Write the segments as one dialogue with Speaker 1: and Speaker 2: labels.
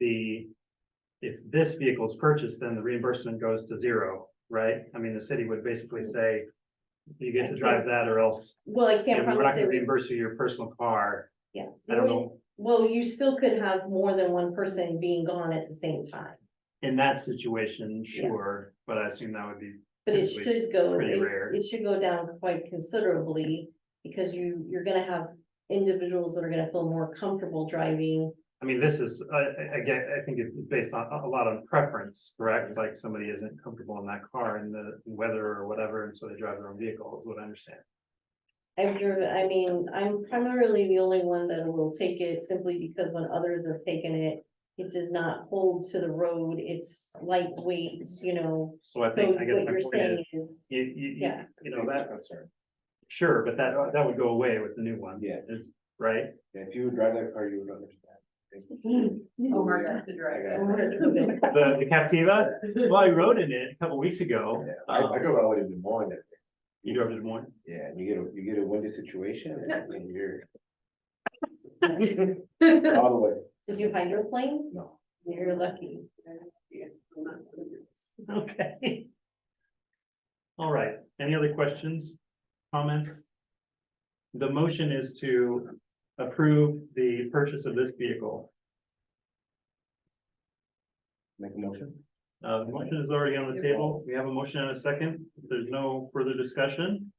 Speaker 1: the, if this vehicle is purchased, then the reimbursement goes to zero, right? I mean, the city would basically say, you get to drive that or else,
Speaker 2: Well, I
Speaker 1: you
Speaker 2: can't
Speaker 1: know, we're not
Speaker 2: promise
Speaker 1: gonna
Speaker 2: it, Mm-hmm. would-
Speaker 1: reimburse you your personal car.
Speaker 2: yeah.
Speaker 1: I don't know,
Speaker 2: Well, you still could have more than one person being gone at the same time,
Speaker 1: in that situation, sure, but I assume that would be,
Speaker 2: but it
Speaker 1: Typically,
Speaker 2: should go,
Speaker 1: pretty
Speaker 2: it
Speaker 1: rare.
Speaker 2: it should go down quite considerably. Because you, you're gonna have individuals that are gonna feel more comfortable driving.
Speaker 1: I mean, this is, I, I, I get- I think it's based on, a lot on preference, correct? Like, somebody isn't comfortable in that car and the weather or whatever, and so they drive their own vehicle, is what I understand.
Speaker 2: I've driven, I mean, I'm primarily the only one that will take it simply because when others have taken it. It does not hold to the road, it's lightweight, you know,
Speaker 1: So I
Speaker 2: so
Speaker 1: think, I
Speaker 2: what
Speaker 1: guess my point
Speaker 2: you're
Speaker 1: is,
Speaker 2: saying is,
Speaker 1: you, you, you,
Speaker 2: Yeah.
Speaker 1: you know, that, sure, but that, that would go away with the new one.
Speaker 3: Yeah.
Speaker 1: It's- Right?
Speaker 3: If you would drive that car, you would understand.
Speaker 2: Mm.
Speaker 4: Omar got to drive
Speaker 3: I
Speaker 4: it.
Speaker 1: The, the Captiva, well, I rode in it a couple weeks ago.
Speaker 3: Yeah, I, I
Speaker 1: Um,
Speaker 3: drove all the way to Des Moines. that day.
Speaker 1: You drove to Des Moines?
Speaker 3: Yeah, and you get, a you get a windy situation and then you're. All the way,
Speaker 2: did you hydroplane?
Speaker 3: no.
Speaker 2: You're lucky.
Speaker 1: Okay. All right, any other questions, comments? The motion is to approve the purchase of this vehicle.
Speaker 3: Make a motion?
Speaker 1: Uh, the motion is already on the table. We have a motion and a second. If there's no further discussion.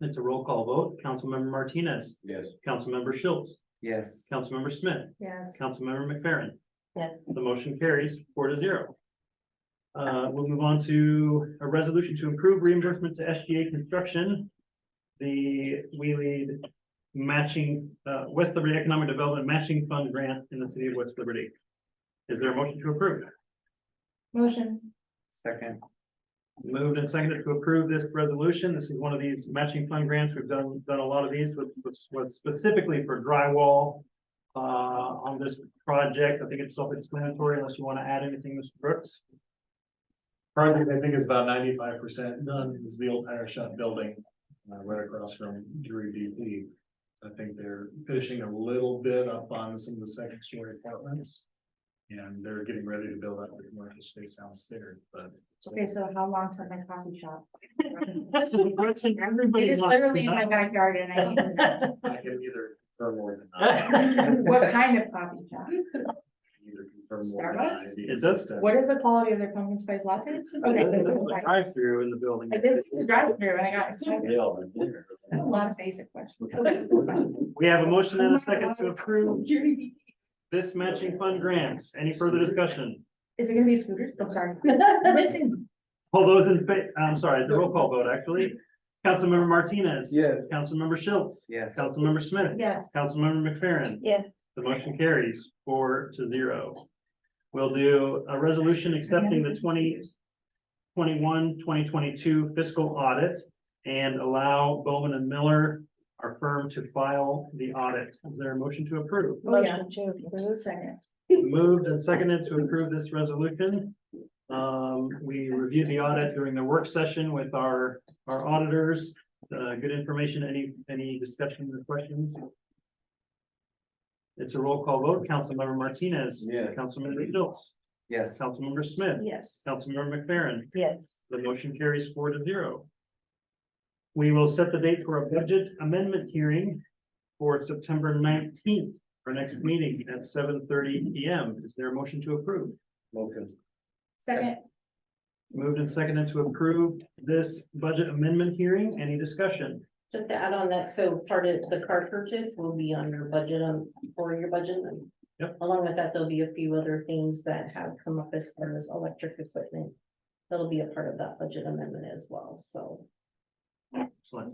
Speaker 1: It's a roll call vote. Councilmember Martinez,
Speaker 3: Yes.
Speaker 1: Councilmember Schultz,
Speaker 3: Yes.
Speaker 1: Councilmember Smith,
Speaker 2: Yes.
Speaker 1: Councilmember McFerrin.
Speaker 2: Yes.
Speaker 1: The motion carries four to zero. Uh, we'll move on to a resolution to improve reimbursement to SGA Construction. The We Lead Matching, uh, West Liberty Economic Development Matching Fund Grant in the city of West Liberty. Is there a motion to approve?
Speaker 4: Motion.
Speaker 3: Second.
Speaker 1: Moved and seconded to approve this resolution. This is one of these matching fund grants. We've done, done a lot of these with, with- with specifically for drywall. Uh, on this project, I think it's self-explanatory unless you want to add anything, Mr. Brooks.
Speaker 5: Project, I think is about ninety-five percent done, is the old tire shop building, uh, right across from Drury DP. I think they're finishing a little bit up on some of the second story apartments. And they're getting ready to build out the commercial space downstairs, but.
Speaker 4: Okay, so how long till my coffee shop? It
Speaker 1: Everybody
Speaker 4: is literally in my backyard and I need to know.
Speaker 5: I can either confirm or deny,
Speaker 4: What kind of coffee shop?
Speaker 5: either confirm or deny.
Speaker 4: Starbucks?
Speaker 5: the
Speaker 1: It does-
Speaker 5: existence.
Speaker 4: What is the quality of their pumpkin spice lattes? Okay.
Speaker 1: Drive-through in the building.
Speaker 4: I did the drive through and I got excited. A lot of basic questions.
Speaker 1: We have a motion and a second to approve this matching fund grants. Any further discussion?
Speaker 4: Is it gonna be scooters? I'm sorry. Listen,
Speaker 1: All those in, fa- I'm sorry, the roll call vote, actually. Councilmember Martinez.
Speaker 3: Yes.
Speaker 1: Councilmember Schultz.
Speaker 3: Yes.
Speaker 1: Councilmember Smith.
Speaker 4: yes.
Speaker 1: Councilmember McFerrin.
Speaker 4: Yes.
Speaker 1: The motion carries four to zero. We'll do a resolution accepting the 2021-2022 fiscal audit and allow Bowman and Miller, our firm, to file the audit. Is there a motion to approve?
Speaker 4: Oh, yeah. Second.
Speaker 1: Moved and seconded to approve this resolution. Um, we reviewed the audit during the work session with our, our auditors. Uh, good information. Any, any discussion or questions? It's a roll call vote. Councilmember Martinez.
Speaker 3: Yes.
Speaker 1: Councilmember Schultz.
Speaker 3: Yes.
Speaker 1: Councilmember Smith.
Speaker 4: Yes.
Speaker 1: Councilmember McFerrin.
Speaker 4: Yes.
Speaker 1: The motion carries four to zero. We will set the date for a budget amendment hearing for September nineteenth, for next meeting at seven thirty P M. Is there a motion to approve?
Speaker 3: Motion.
Speaker 4: Second,
Speaker 1: Moved and seconded to approve this budget amendment hearing. Any discussion?
Speaker 2: Just to add on that, so part of the car purchase will be on your budget, um, for your budget.
Speaker 1: Yep.
Speaker 2: Along with that, there'll be a few other things that have come up as far as electric equipment. That'll be a part of that budget amendment as well, so.
Speaker 1: Excellent.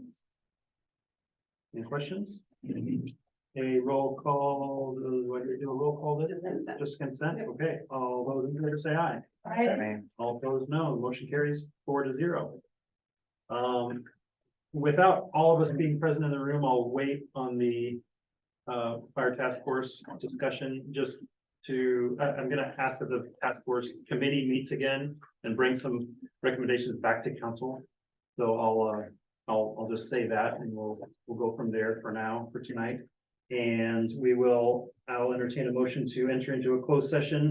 Speaker 1: Any questions? A roll call, uh, what do we do, a roll call? this?
Speaker 2: Consent.
Speaker 1: Just consent? Okay, all those in favor say aye.
Speaker 4: right,
Speaker 1: All opposed, no. The Motion carries four to zero. Um, without all of us being present in the room, I'll wait on the uh, fire task force discussion just to, I, I'm gonna ask that the task force committee meets again and bring some recommendations back to council. So I'll, uh, I'll, I'll just say that and we'll, we'll go from there for now, for tonight. And we will, I'll entertain a motion to enter into a closed session